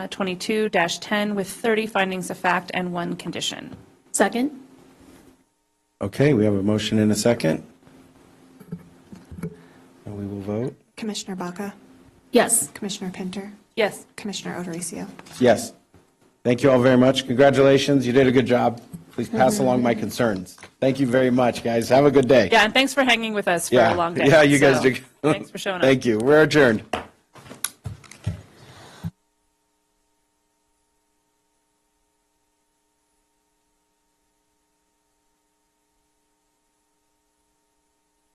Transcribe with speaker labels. Speaker 1: 22-10 with 30 findings of fact and one condition.
Speaker 2: Second?
Speaker 3: Okay, we have a motion and a second. And we will vote.
Speaker 4: Commissioner Baca,
Speaker 2: Yes.
Speaker 4: Commissioner Pinter,
Speaker 1: Yes.
Speaker 4: Commissioner Odorizio.
Speaker 3: Yes. Thank you all very much. Congratulations. You did a good job. Please pass
Speaker 1: Mm-hmm.
Speaker 3: along my concerns. Thank you very much, guys. Have a good day.
Speaker 1: Yeah, and thanks for hanging with us for a long day.
Speaker 3: Yeah, you guys
Speaker 1: So,
Speaker 3: do.
Speaker 1: Thanks for showing up.
Speaker 3: Thank you. We're adjourned.